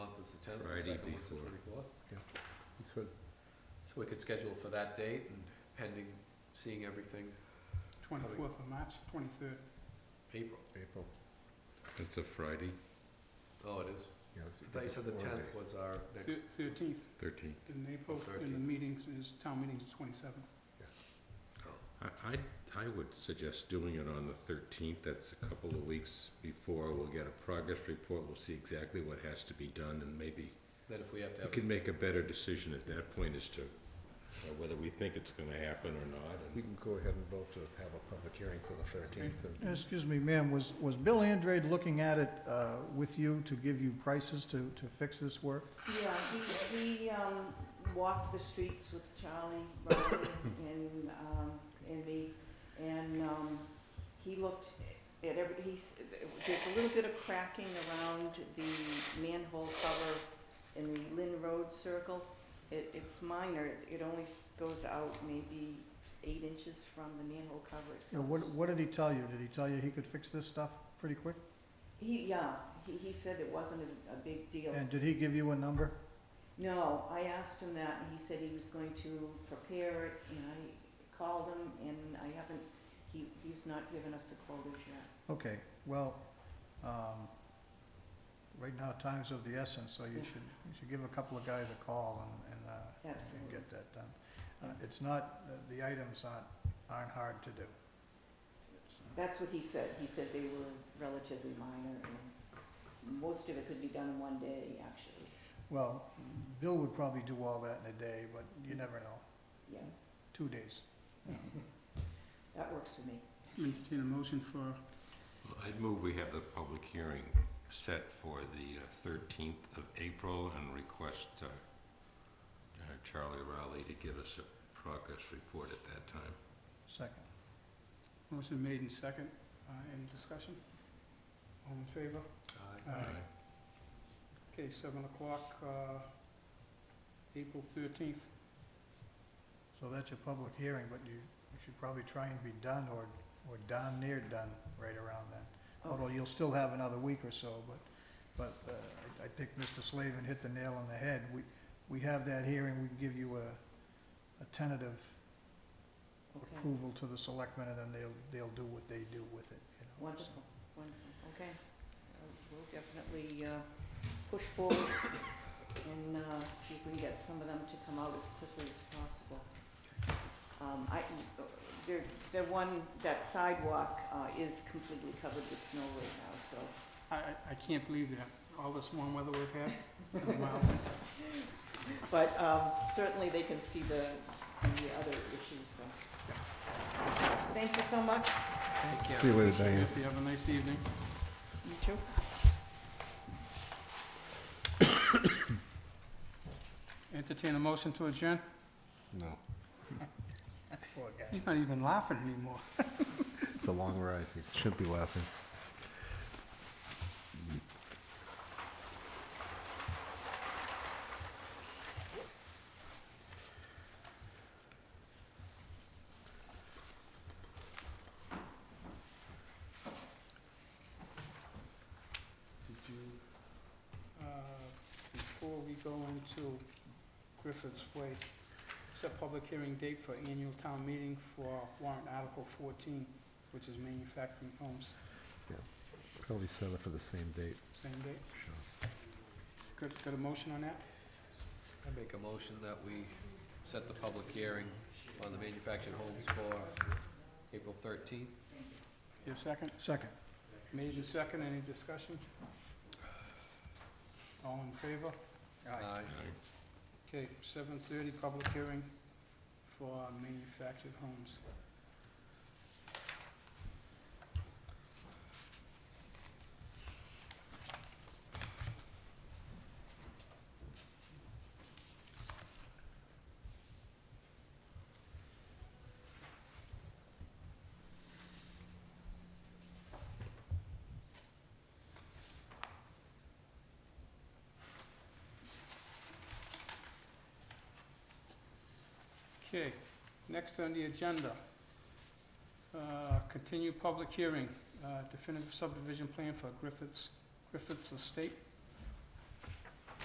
so. the Friday second one's the before. 24th. We could, So we could schedule for that date and pending, seeing everything Twenty-fourth of March, twenty-third. April. April, It's a Friday, Oh, it is? yeah. I thought you said the tenth was our next, Thirteenth thirteenth. in April, and the 13th. meetings is, town meeting's twenty-seventh. I, I, I would suggest doing it on the thirteenth, that's a couple of weeks before, we'll get a progress report, we'll see exactly what has to be done, and maybe then if we have to we have, can a- make a better decision at that point as to uh, whether we think it's gonna happen or not, We and can go ahead and vote to have a public hearing for the thirteenth and Uh, Excuse me, ma'am, was, was Bill Andrade looking at it uh, with you to give you prices to, to fix this work? Yeah, he, he, um, walked the streets with Charlie, Robin, and, um, and me, and, um, he looked at every, he's, there's a little bit of cracking around the manhole cover in the Lynn Road circle. It, it's minor, It- it only s- goes out maybe eight inches from the manhole cover You know, itself. what, what did he tell you? Did he tell you he could fix this stuff pretty quick? He, yeah, he, he said it wasn't a, a big deal. And did he give you a number? No, I asked him that, and he said he was going to prepare it, and I called him, and I haven't, he, he's not given us the quotas yet. Okay, well, um, right now, time's of the essence, so you Yeah. should, you should give a couple of guys a call and, and, uh, and Absolutely. get that done. Uh, It's not, the items aren't, aren't hard to do. That's what he said, he said they were relatively minor, and most of it could be done in one day, actually, Well, Bill would probably do all that in a day, but you never know, yeah, two days. that works for me. Entertain a motion for, I'd move we have the public hearing set for the uh, thirteenth of April and request, uh, uh, Charlie Rowley to give us a progress report at that time. Second. motion made in second, uh, any discussion? All in favor? uh, Aye. Okay, seven o'clock, uh, April thirteenth. So that's your public hearing, but you, you should probably try and be done or, or darn near done right around then. Although you'll still have another week or so, but, but, uh, I, I think Mr. Slavin hit the nail on the head. We, we have that hearing, we can give you a, a tentative Okay, approval to the selectmen and then they'll, they'll do what they do with it, you know. wonderful, wonderful, okay. Uh, We'll definitely, uh, push forward and, uh, see if we can get some of them to come out as quickly as possible. Um, I, there, the one, that sidewalk, uh, is completely covered with snow right now, so I, I, I can't believe that, all this warm weather we've had. in a while. But um, certainly, they can see the, the other issues, so. Thank you so much. Take care. See you later, Diane. If you have a nice evening. You too. Entertain a motion to adjourn? No, Poor guy. He's not even laughing anymore. it's a long ride. You shouldn't be laughing. Did you? Uh, Before we go into Griffith's Way, set public hearing date for annual town meeting for warrant article fourteen, which is manufacturing homes, Probably set up for the same date, same date. sure. Got, got a motion on that? I make a motion that we set the public hearing on the manufactured homes for April thirteenth. Your second? Second. Made and second, any discussion? All in favor? Aye. Okay, seven thirty, public hearing for manufactured homes. Okay, next on the agenda, uh, continue public hearing, uh, definitive subdivision plan for Griffiths, Griffiths Estate.